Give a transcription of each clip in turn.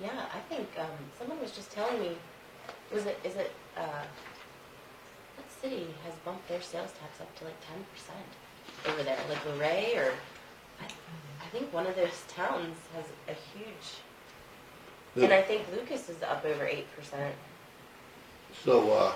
Yeah, I think, um, someone was just telling me, was it, is it, uh, what city has bumped their sales tax up to like ten percent over there? Like Luray or, I, I think one of those towns has a huge, and I think Lucas is up over eight percent. So, uh,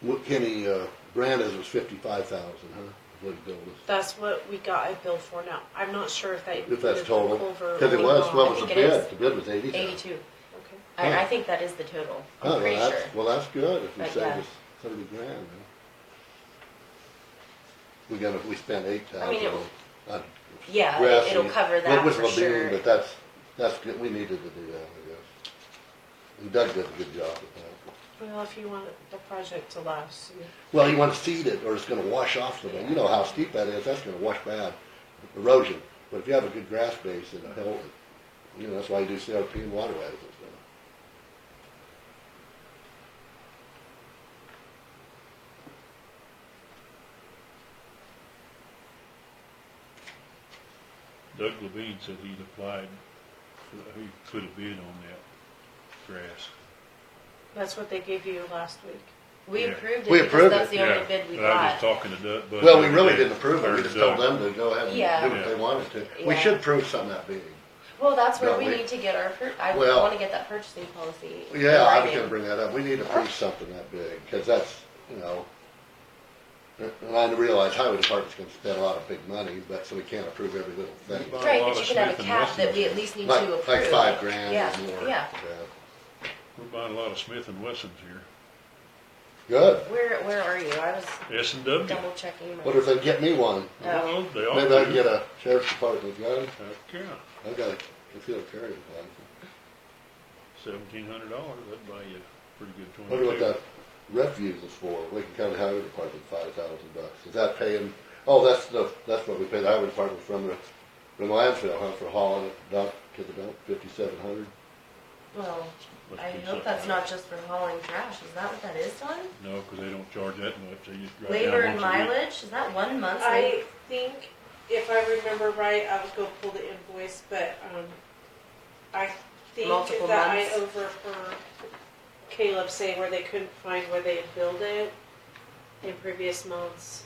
what Kenny, uh, Brandes was fifty-five thousand, huh, is what he billed us? That's what we got a bill for now. I'm not sure if that. If that's included total, Culver cause it or was, not. what was the I think it is. bid? The bid was eighty thousand. Eighty-two. Okay. I, I Huh. think that is the total, Oh, I'm well, pretty sure. that's- Well, that's good, if we But, save yeah. us thirty grand, man. We got, we spent eight I mean, thousand it- on Yeah, grass. it- it'll and- cover It that was for Levine, sure. but that's, that's good, we needed to do that, I guess. And Doug did a good job with that. Well, if you want the project to last, you- Well, you want to seed it, or it's gonna wash off the, you know how steep that is, that's gonna wash bad, erosion. But if you have a good grass base, it'll help, you know, that's why you do CRP and waterways and stuff. Doug Levine said he'd applied, he put a bid on that grass. that's what they gave you last week. We Yeah. approved it We because approved that's it. the only Yeah, bid we but I was just got. talking to Doug. Bud Well, we the other really day, didn't approve it, we or just Doug. told them to go ahead Yeah. and do what they wanted to. We Yeah. should prove something that big. Well, that's where No, we we- need to get our, pur- I Well- wanna get that purchasing policy. Yeah, I was writing. gonna bring that up, we need to prove something that big, because that's, you know, and I realize highway department's gonna spend a lot of big money, but, so we can't approve every little thing. Buy a Right, lot but you of can have a Smith and cap that we Wessons. at least need to Like, approve. like five grand Yeah, or more. Yeah, We're buying a lot of Smith and Wessons here. Good, where, where are you? I was S and W. double checking. my- what if they get me one? Well, they all Maybe I can do. get a sheriff's department gun, Heck, yeah, I've got a concealed carry one. seventeen hundred dollars, that'd buy you a pretty good Wonder twenty-two. what that refuse is for, we can cover the highway department five thousand bucks, is that paying, oh, that's the, that's what we pay the highway department from the, from the landfill, huh, for hauling it dump to the dump, fifty-seven hundred? Well, Must I be hope that's something. not just for hauling trash. Is that what that is, Don? No, 'cause they don't charge that much, they just drive down Labor and once a week. mileage? Is that one month's? I think, if I remember right, I would go pull the invoice, but, um, I think Multiple that I months. overheard Caleb say where they couldn't find where they had billed it in previous months.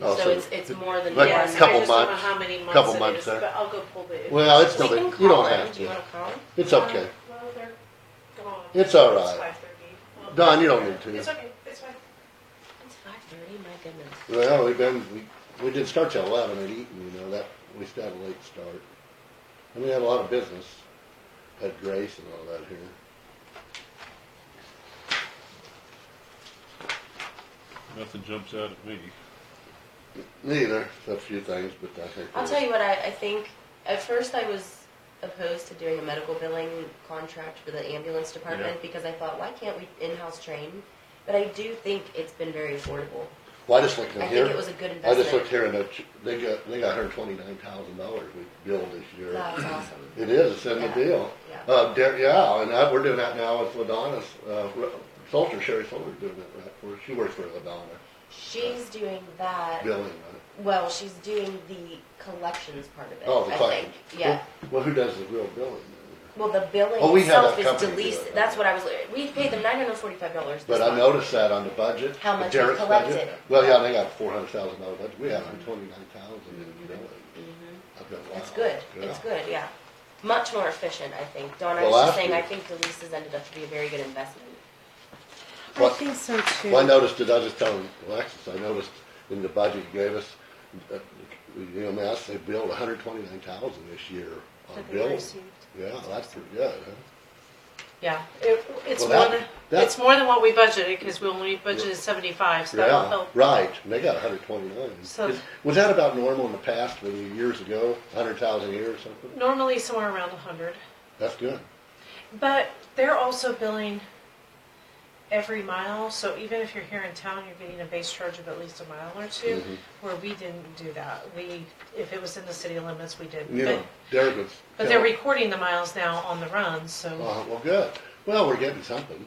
Oh, So it's, it's more than one. Like Yeah, so couple I just don't know months, how many couple months it months is, there. but I'll go pull the. Well, it's We no, can big- you call don't them. have Do you to, wanna call them? it's okay, Well, they're gone. It's all right. It's 5:30. Well, Don, you don't need It's to, okay, it's fine. It's five thirty, my goodness. well, we've been, we, we didn't start till eleven at Eaton, you know, that, we still had a late start. And we had a lot of business, had Grace and all that here. Nothing jumps out at me. Neither, except a few things, but I think. I'll tell you what I, I think. At first, I was opposed to doing a medical billing contract for the ambulance department Yeah. because I thought, why can't we in-house train? But I do think it's been very affordable. Well, I just looked in I here. think it was a good I just investment. looked here and it- they got, they got hundred twenty-nine thousand dollars we billed this year. That's awesome. It is, it's in the Yeah, deal. yeah. Uh, Dar- yeah, and that, we're doing that now with Ladonna's, uh, Re- Salter, Sherry Salter's doing it, right, where she works for Ladonna, She's doing that. billing, right? Well, she's doing the collections part of it. Oh, the I client. think. Yeah. Well, who does the real billing? then? Well, the billing Oh, we had itself that is company do deleted. it. That's what I was. We paid them nine hundred forty-five dollars. But I noticed that on the budget. How much we Derek's budget. collected. Well, yeah, they got four hundred thousand dollars, budget. we had hundred twenty-nine thousand in billing. Mm-hmm. I've got, wow. It's good. It's Yeah. good. Yeah. Much more efficient, I think. Don, I Well, was just after- saying, I think Delisa's ended up to be a very good investment. I What- think so too. Well, I noticed it, I was just telling Alexis, I noticed in the budget you gave us, uh, you know, mass, they billed hundred twenty-nine thousand this year on That they billing. received. Yeah, that's pretty good, huh? Yeah, it, it's Well, more that- than, that- it's more than what we budgeted, cause we only budgeted seventy-five, so that'll Yeah, help. right, and they got hundred twenty-nine. So- Was that about normal in the past, when you, years ago, hundred thousand a year or something? Normally somewhere around a hundred, That's good. but they're also billing every mile, so even if you're here in town, you're getting a base charge of at least a mile or two, Mhm. where we didn't do that. We, if it was in the city limits, we didn't, You but, know, Derek was. but they're recording the miles now on the run, so, Uh, well, good. Well, we're getting something.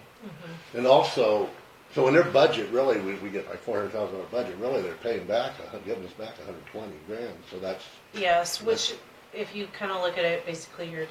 And also, so in their budget, really, we, we get like four hundred thousand dollar budget, really, they're paying back, a hun- giving us back a hundred twenty grand, so that's, yes, which, if you kinda look at it, basically you're